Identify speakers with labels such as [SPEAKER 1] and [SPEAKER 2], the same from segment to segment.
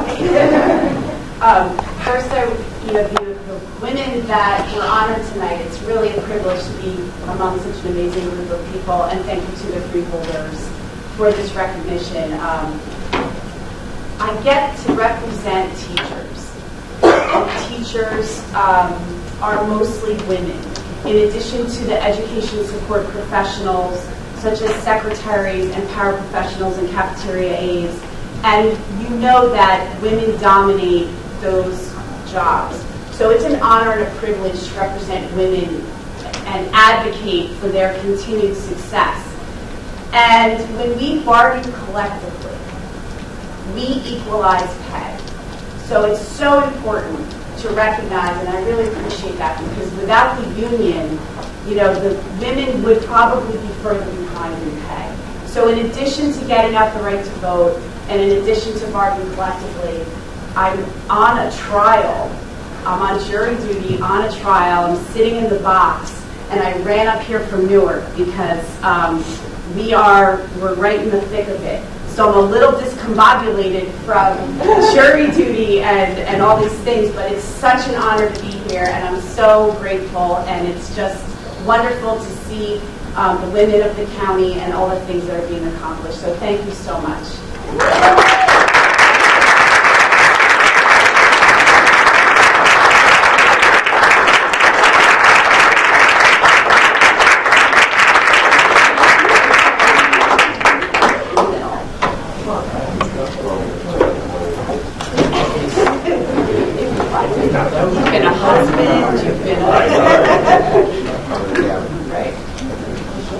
[SPEAKER 1] Um, First, I would, you know, view the women that were honored tonight, it's really a privilege to be among such an amazing group of people, and thank you to the three holders for this recognition. Um, I get to represent teachers. And Teachers um, are mostly women. In addition to the education support professionals, such as secretaries and paraprofessionals and cafeteria aides, and you know that women dominate those jobs. So it's an honor and a privilege to represent women and advocate for their continued success. And when we bargain collectively, we equalize pay. So it's so important to recognize, and I really appreciate that, because without the union, you know, the women would probably be further behind in pay. So in addition to getting out the right to vote, and in addition to bargaining collectively, I'm on a trial, I'm on jury duty, on a trial, I'm sitting in the box, and I ran up here from Newark because um, we are, we're right in the thick of it. So I'm a little discombobulated from jury duty and, and all these things, but it's such an honor to be here, and I'm so grateful, and it's just wonderful to see um, the women of the county and all the things that are being accomplished. So thank you so much. You've been a husband, you've been a... Right.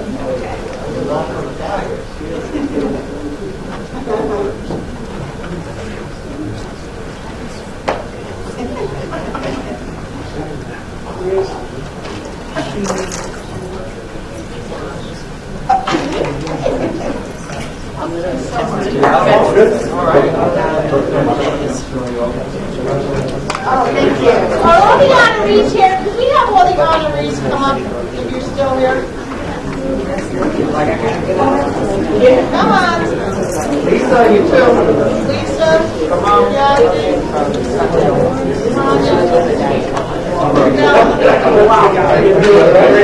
[SPEAKER 2] Oh, thank you. Are all the honorees here? Because we have all the honorees come up if you're still here. Come on.
[SPEAKER 3] Lisa, you too.
[SPEAKER 2] Lisa. Come on.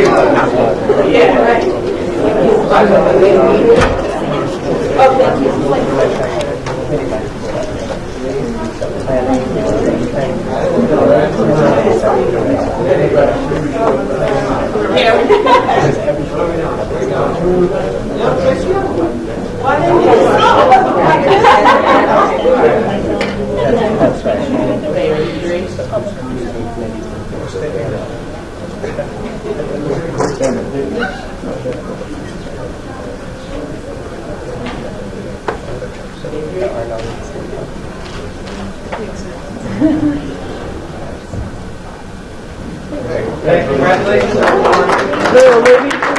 [SPEAKER 1] Yeah, right.
[SPEAKER 3] Hey, congratulations, everyone.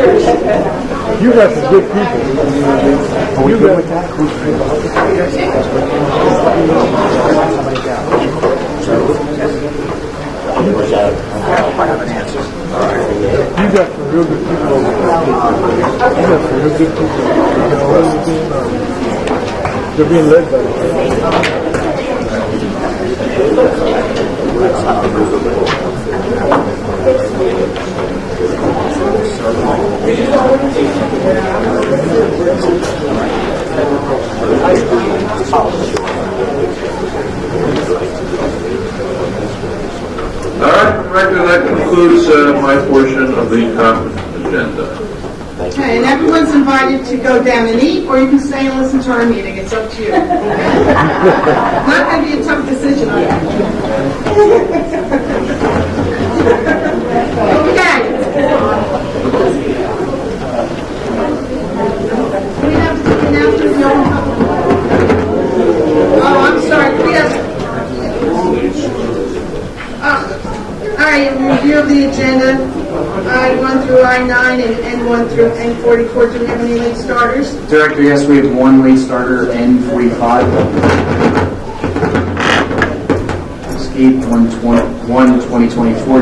[SPEAKER 4] You got some good people. Are we good with that? You got some real good people. over there. You got some real good people. You know, really being, um, They're being led by.
[SPEAKER 5] All right, Director, that concludes uh, my portion of the conference agenda.
[SPEAKER 6] Okay, and everyone's invited to go down and eat, or you can stay and listen to our meeting, it's up to you. Not gonna be a tough decision on that. Okay. We have to announce the open public. Oh, I'm sorry, we have, all right, review of the agenda, I-1 through I-9 and N-1 through N-44. Do we have any late starters?
[SPEAKER 7] Director, yes, we have one late starter, N45. Escape, one twen- one 2024